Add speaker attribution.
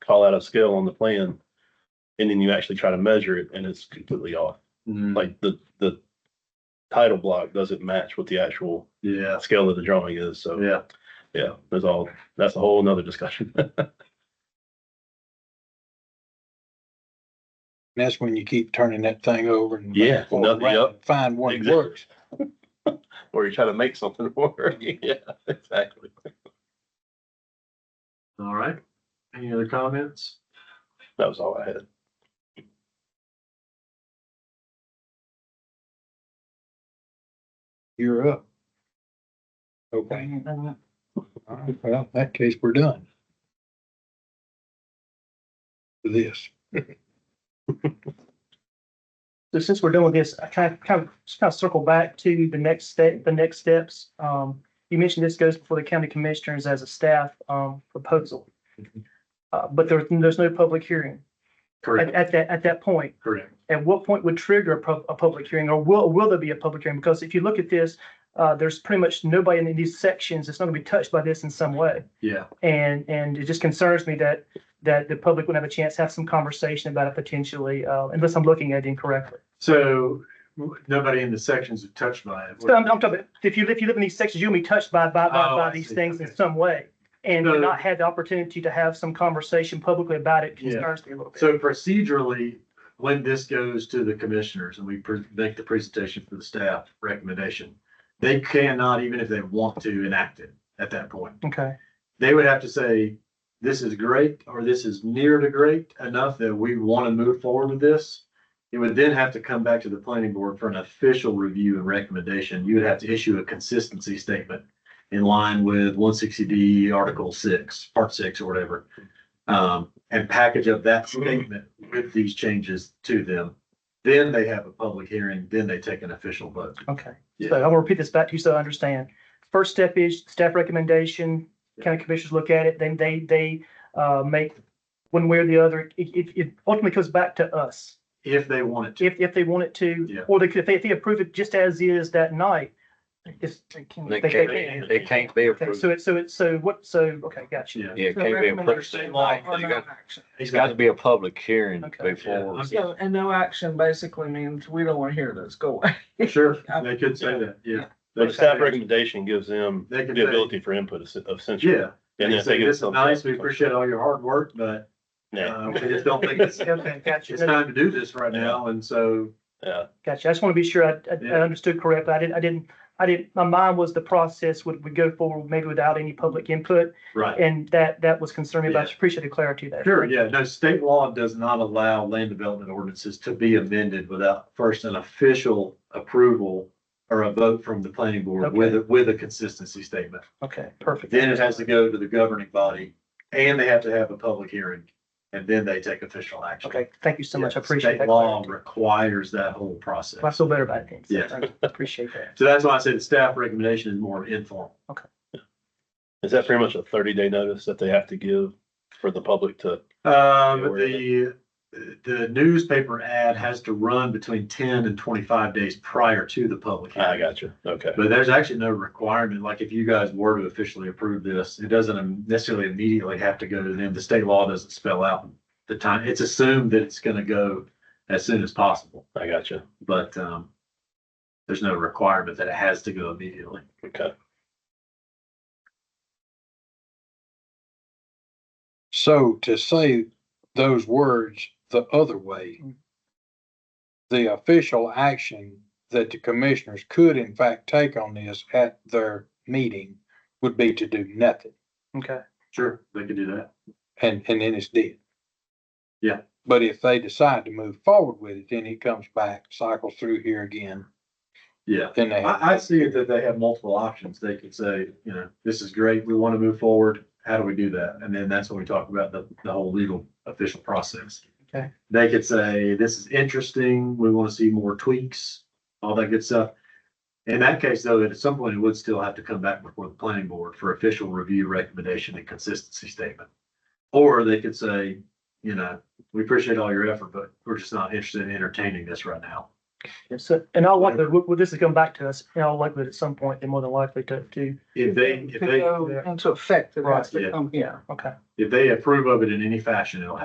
Speaker 1: call out a scale on the plan. And then you actually try to measure it and it's completely off.
Speaker 2: Mm-hmm.
Speaker 1: Like the, the title block doesn't match what the actual
Speaker 2: Yeah,
Speaker 1: scale of the drawing is. So,
Speaker 2: yeah.
Speaker 1: yeah, there's all, that's a whole nother discussion.
Speaker 3: That's when you keep turning that thing over and.
Speaker 1: Yeah,
Speaker 3: Well,
Speaker 1: nothing,
Speaker 3: right,
Speaker 1: yep.
Speaker 3: Find one that
Speaker 1: Exactly.
Speaker 3: works.
Speaker 1: Or you try to make something work. Yeah, exactly.
Speaker 2: All right. Any other comments?
Speaker 1: That was all I had.
Speaker 3: You're up. Okay. All right, well, in that case, we're done. For This.
Speaker 4: So since we're doing this, I kind of, kind of, just kind of circle back to the next step, the next steps. Um, you mentioned this goes before the county commissioners as a staff, um, proposal. Uh, but there, there's no public hearing at,
Speaker 2: Correct,
Speaker 4: at that, at that point.
Speaker 2: correct.
Speaker 4: At what point would trigger a, pub- a public hearing or will, will there be a public hearing? Because if you look at this, uh, there's pretty much nobody in these sections that's not gonna be touched by this in some way.
Speaker 2: Yeah,
Speaker 4: And, and it just concerns me that, that the public would have a chance to have some conversation about it potentially, uh, unless I'm looking at it incorrectly.
Speaker 2: so w- nobody in the sections are touched by it.
Speaker 4: So I'm, I'm talking, about if you, if you live in these sections, you'll be touched by, by, by,
Speaker 2: Oh,
Speaker 4: by
Speaker 2: I
Speaker 4: these
Speaker 2: see.
Speaker 4: things in
Speaker 2: Okay.
Speaker 4: some way. And
Speaker 2: No.
Speaker 4: to not had the opportunity to have some conversation publicly about it
Speaker 2: Yeah.
Speaker 4: concerns me a little bit.
Speaker 2: So procedurally, when this goes to the commissioners and we pre- make the presentation for the staff recommendation, they cannot, even if they want to, enact it at that point.
Speaker 4: Okay,
Speaker 2: they would have to say, this is great, or this is near to great enough that we want to move forward with this. It would then have to come back to the planning board for an official review and recommendation. You would have to issue a consistency statement in line with one sixty D Article six, Part six or whatever. Um, and package up that statement with these changes to them. Then they have a public hearing, then they take an official vote.
Speaker 4: okay.
Speaker 2: Yeah.
Speaker 4: So I'm gonna repeat this back to you so I understand. First step is staff recommendation, county commissioners look at it, then they, they, uh, make one way or the other. It, it, it ultimately comes back to us.
Speaker 2: If they wanted to,
Speaker 4: If, if they wanted to,
Speaker 2: Yeah.
Speaker 4: or they could, if they, if they approve it just as is that night, it's. They
Speaker 5: They can't, they can't be
Speaker 4: Okay,
Speaker 5: approved.
Speaker 4: so it's, so it's, so what, so, okay, gotcha.
Speaker 2: yeah.
Speaker 5: Yeah, it
Speaker 6: So
Speaker 5: can't be approved.
Speaker 6: recommendation
Speaker 2: Like,
Speaker 6: or
Speaker 5: you
Speaker 6: no
Speaker 5: got-
Speaker 6: action.
Speaker 5: It's got to be a public hearing
Speaker 4: Okay.
Speaker 5: before.
Speaker 2: Yeah.
Speaker 6: So, and no action basically means we don't want to hear this, go away.
Speaker 2: Sure, they could say that, yeah. They
Speaker 1: The
Speaker 2: could
Speaker 1: staff
Speaker 2: say-
Speaker 1: recommendation gives them
Speaker 2: They
Speaker 1: the
Speaker 2: can say,
Speaker 1: ability for input es- essentially.
Speaker 2: yeah, they
Speaker 1: And
Speaker 2: can
Speaker 1: if they
Speaker 2: say,
Speaker 1: get
Speaker 2: this is
Speaker 1: some-
Speaker 2: nice, we appreciate all your hard work, but
Speaker 1: Nah.
Speaker 2: uh, we just don't think it's,
Speaker 4: Okay, gotcha.
Speaker 2: it's time to do this right now, and so.
Speaker 1: Yeah,
Speaker 4: Gotcha. I just want to be sure I, I- I
Speaker 2: Yeah.
Speaker 4: understood correctly. I didn't, I didn't, I didn't, my mind was the process would, would go forward maybe without any public input.
Speaker 2: Right.
Speaker 4: And that, that was concerning, but I
Speaker 2: Yeah.
Speaker 4: appreciate the clarity there.
Speaker 2: Sure, yeah, no, state law does not allow land development ordinances to be amended without first an official approval or a vote from the planning board
Speaker 4: Okay.
Speaker 2: with, a- with a consistency statement.
Speaker 4: Okay, perfect.
Speaker 2: Then it has to go to the governing body, and they have to have a public hearing, and then they take official action.
Speaker 4: Okay, thank you so much. I
Speaker 2: Yeah,
Speaker 4: appreciate
Speaker 2: state
Speaker 4: that.
Speaker 2: Law
Speaker 4: clarity.
Speaker 2: requires that whole
Speaker 4: I
Speaker 2: process.
Speaker 4: feel better about it.
Speaker 2: Yeah.
Speaker 4: Yes. Appreciate that.
Speaker 2: So that's why I said the staff recommendation is more informal.
Speaker 1: is that pretty much a thirty day notice that they have to give for the public to?
Speaker 2: Um,
Speaker 1: Yeah, where
Speaker 2: the, the newspaper ad has to run between ten and twenty-five days prior to the public.
Speaker 1: "Ah, I
Speaker 2: hearing.
Speaker 1: gotcha. Okay.
Speaker 2: But there's actually no requirement, like if you guys were to officially approve this, it doesn't necessarily immediately have to go to them. The state law doesn't spell out the time. It's assumed that it's gonna go as soon as possible,
Speaker 1: I gotcha.
Speaker 2: but, um, there's no requirement that it has to go immediately.
Speaker 1: Okay.
Speaker 3: So to say those words the other way, the official action that the commissioners could in fact take on this at their meeting would be to do nothing.
Speaker 4: Okay,
Speaker 2: Sure. They could do that.
Speaker 3: And, and then it's dead.
Speaker 2: Yeah.
Speaker 3: But if they decide to move forward with it, then it comes back, cycles through here again,
Speaker 2: Yeah,
Speaker 3: then they have.
Speaker 2: I, I see that they have multiple options. They could say, you know, this is great, we want to move forward. How do we do that? And then that's when we talk about the, the whole legal official process.
Speaker 4: Okay.
Speaker 2: They could say, this is interesting, we want to see more tweaks, all that good stuff. In that case, though, at some point, it would still have to come back before the planning board for official review, recommendation, and consistency statement. Or they could say, you know, we appreciate all your effort, but we're just not interested in entertaining this right now.
Speaker 4: Yes, sir. And I'll likely, well, well, this is coming back to us, and I'll likely at some point, they're more than likely to, to,
Speaker 2: If they, if
Speaker 6: To
Speaker 2: they,
Speaker 6: go Into effect, it has
Speaker 2: Right,
Speaker 6: to
Speaker 2: yeah.
Speaker 6: come here.
Speaker 4: okay.
Speaker 2: if they approve of it in any fashion, it'll have